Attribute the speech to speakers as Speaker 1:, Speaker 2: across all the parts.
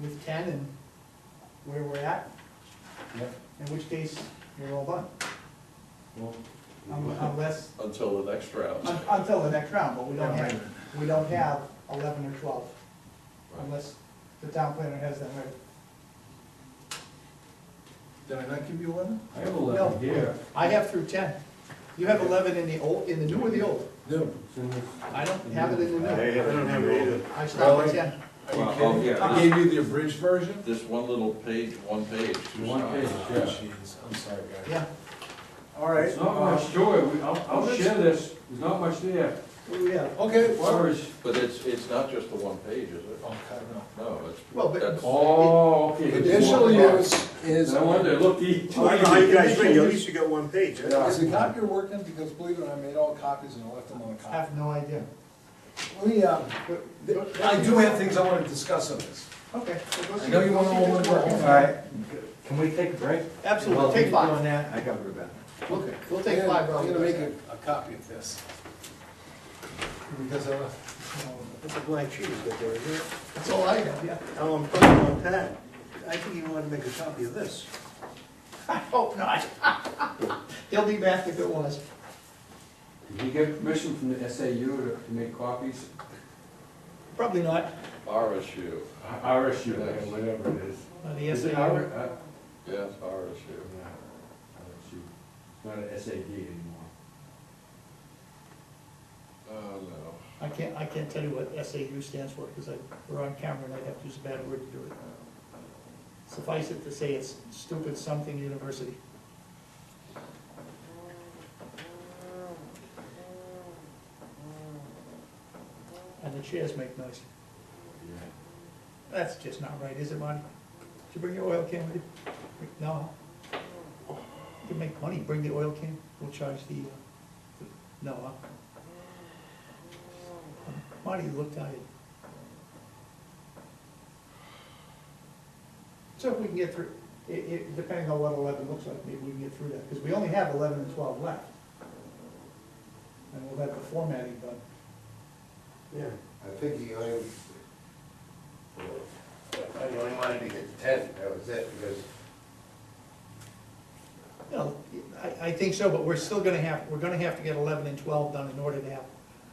Speaker 1: with ten and where we're at,
Speaker 2: Yep.
Speaker 1: in which case, you're all done.
Speaker 2: Well,
Speaker 1: Um, Unless,
Speaker 3: Until the next round.
Speaker 1: un- until the next round, but we don't
Speaker 2: Right.
Speaker 1: have, we don't have eleven or twelve, unless the town planner has them ready.
Speaker 4: Did I not give you eleven?
Speaker 2: I have
Speaker 1: No,
Speaker 2: eleven here.
Speaker 1: I have through ten. You have eleven in the old, in the new or the old?
Speaker 4: No.
Speaker 2: It's in this-
Speaker 1: I don't have it in the new.
Speaker 5: I haven't had it either.
Speaker 1: I stopped at
Speaker 4: Really?
Speaker 1: ten.
Speaker 4: Are
Speaker 3: Well,
Speaker 4: you
Speaker 3: oh,
Speaker 4: kidding? me?
Speaker 3: yeah.
Speaker 4: I gave you the abridged version?
Speaker 3: This one little page, one page. two
Speaker 2: One
Speaker 3: sides.
Speaker 2: page, yeah.
Speaker 4: Jeez, I'm sorry, guys.
Speaker 1: Yeah,
Speaker 4: All right.
Speaker 2: There's not much to it, We- I'll, I'll
Speaker 4: Well,
Speaker 2: share this, there's not much there.
Speaker 1: oh, yeah.
Speaker 4: Okay, well.
Speaker 2: Where is,
Speaker 3: But it's, it's not just the one page, is it?
Speaker 4: Oh, God, no.
Speaker 3: No, it's.
Speaker 1: Well, but-
Speaker 3: that's-
Speaker 2: oh, okay. there's
Speaker 4: Conditional
Speaker 2: one box.
Speaker 4: use is.
Speaker 2: No wonder, look, he.
Speaker 5: Well, I know how you guys think, at least you got one page, eh?
Speaker 4: Is the copier working? Because believe it or not, I made all copies and I left them on a
Speaker 1: I
Speaker 4: copy.
Speaker 1: have no idea.
Speaker 4: Let me, um,
Speaker 1: But-
Speaker 4: I do have things I wanna discuss on this.
Speaker 1: Okay. so go
Speaker 4: I
Speaker 1: see-
Speaker 4: know you
Speaker 1: go
Speaker 4: want
Speaker 1: see
Speaker 4: all
Speaker 1: this
Speaker 4: the work.
Speaker 1: working.
Speaker 4: All right.
Speaker 6: Can we take a break?
Speaker 1: Absolutely, take
Speaker 6: While he's
Speaker 1: five.
Speaker 6: doing that, I gotta go to bed.
Speaker 4: Okay.
Speaker 1: We'll take five, Rob.
Speaker 4: I'm gonna make a, a copy of this. Because I,
Speaker 5: That's a black sheet is right there, isn't it?
Speaker 1: That's all I have, yeah.
Speaker 5: How I'm putting it on pad. I think you want to make a copy of this.
Speaker 1: I hope not. He'll be back if it was.
Speaker 2: Did he get permission from the SAU to to make copies?
Speaker 1: Probably not.
Speaker 3: RSU,
Speaker 2: RSU, whatever it is.
Speaker 1: Uh, The
Speaker 2: Is it
Speaker 1: SAU,
Speaker 2: R- uh,
Speaker 3: yes, RSU.
Speaker 2: no, RSU. It's Not an SAD anymore.
Speaker 3: Oh, no.
Speaker 1: I can't, I can't tell you what SAU stands for because I, we're on camera and I'd have to use a bad word to do it. Suffice it to say, it's stupid something university. And the chairs make noise.
Speaker 2: Yeah.
Speaker 1: That's just not right, is it, Monty? Did you bring your oil can with you? No. You can make money, bring the oil can, we'll charge the, uh, the- no, uh. Monty, you look tired. So if we can get through, it, it, depending on what eleven looks like, maybe we can get through that, because we only have eleven and twelve left. And we'll have the formatting done.
Speaker 5: Yeah.
Speaker 7: I think he only, I only wanted to get ten, that was it, because
Speaker 1: No, I, I think so, but we're still gonna have, we're gonna have to get eleven and twelve done in order to have,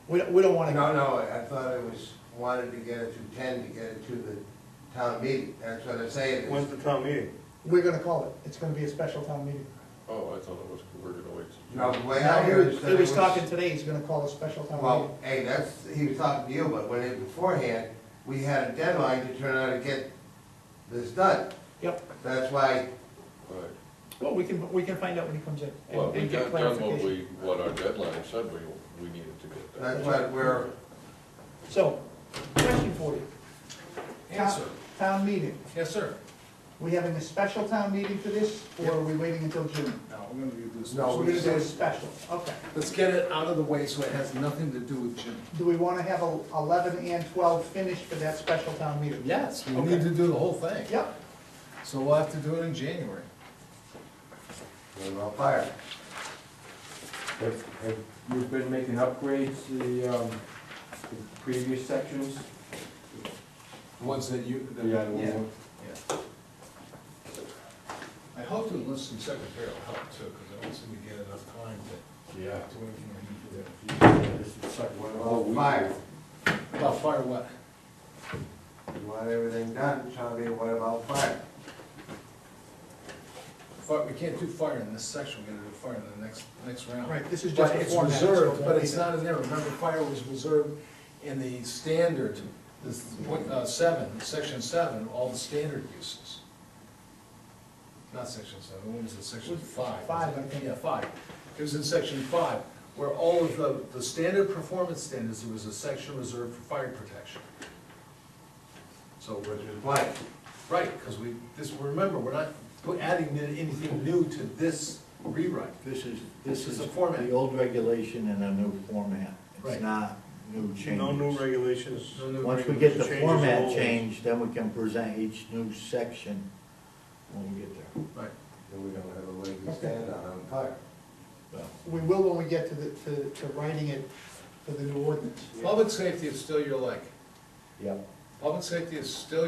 Speaker 1: we, don't- we don't wanna,
Speaker 7: No, no, I thought it was, wanted to get it to ten to get it to the town meeting, that's what I'm saying. is-
Speaker 5: When's the town meeting?
Speaker 1: we're gonna call it, it's gonna be a special town meeting.
Speaker 3: Oh, I thought it was, we we're gonna wait.
Speaker 7: No, the way
Speaker 1: Now,
Speaker 7: I
Speaker 1: he was,
Speaker 7: understood
Speaker 1: he
Speaker 7: it
Speaker 1: was
Speaker 7: was.
Speaker 1: talking today, he's gonna call a special town meeting.
Speaker 7: Well, hey, that's, he was talking to you, but when it, beforehand, we had a deadline to turn out and get this done.
Speaker 1: Yep,
Speaker 7: That's why,
Speaker 3: Right.
Speaker 1: well, we can, we can find out when he comes in. and-
Speaker 3: Well, we
Speaker 1: and get
Speaker 3: got done what
Speaker 1: clarification.
Speaker 3: we, what our deadline said we, we needed to get done.
Speaker 7: that's why we're,
Speaker 1: So, question for you.
Speaker 4: Yes, sir.
Speaker 1: Town meeting,
Speaker 4: Yes, sir.
Speaker 1: we having a special town meeting for this, or are we waiting until June?
Speaker 4: No, we're gonna do this.
Speaker 7: No,
Speaker 1: So
Speaker 7: Oh, we
Speaker 1: we're gonna do a
Speaker 7: said-
Speaker 1: special, okay.
Speaker 4: Let's get it out of the way so it has nothing to do with Jim.
Speaker 1: Do we wanna have a- eleven and twelve finished for that special town meeting?
Speaker 4: Yes, we
Speaker 1: Okay.
Speaker 4: need to do the whole thing.
Speaker 1: Yep,
Speaker 4: So we'll have to do it in January.
Speaker 7: we're on fire.
Speaker 2: Have, have you been making upgrades to the, um, the previous sections?
Speaker 4: The ones that you. that-
Speaker 2: Yeah, the one-
Speaker 4: Yeah. I hope to enlist some secretarial help too, because I don't seem to get enough time to
Speaker 2: Yeah.
Speaker 4: do anything I need to do.
Speaker 2: This is such one of
Speaker 7: We're
Speaker 2: all
Speaker 7: on
Speaker 2: we-
Speaker 7: fire.
Speaker 4: About fire what?
Speaker 7: You want everything done, tell me what about fire?
Speaker 4: Fire, we can't do fire in this section, we're gonna do fire in the next, next round.
Speaker 1: right, this is just
Speaker 4: But
Speaker 1: a
Speaker 4: it's
Speaker 1: format. so it
Speaker 4: reserved,
Speaker 1: won't
Speaker 4: but
Speaker 1: be
Speaker 4: it's
Speaker 1: there.
Speaker 4: not in there, remember, fire was reserved in the standard, this, point, uh, seven, section seven, all the standard uses. Not section seven, what was it, section
Speaker 1: Was it
Speaker 4: five?
Speaker 1: five, I think.
Speaker 4: Yeah, five, it was in section five, where all of the, the standard performance standards, there was a section reserved for fire protection. So we're,
Speaker 7: Which is blank.
Speaker 4: right, because we, this, remember, we're not put- adding anything new to this rewrite.
Speaker 6: This is,
Speaker 4: This is the format.
Speaker 6: old regulation in a new format.
Speaker 4: Right.
Speaker 6: It's not new
Speaker 5: No new
Speaker 6: changes.
Speaker 5: regulations.
Speaker 4: No new
Speaker 6: Once we
Speaker 4: rewrite.
Speaker 6: get the
Speaker 5: Changes
Speaker 6: format
Speaker 5: always.
Speaker 6: changed, then we can present each new section when we get there.
Speaker 4: Right.
Speaker 7: And we don't have a leg to stand on, on fire.
Speaker 6: Well,
Speaker 1: We will when we get to the, to, to writing it for the new ordinance.
Speaker 4: Public safety is still your leg.
Speaker 6: Yep.
Speaker 4: Public safety is still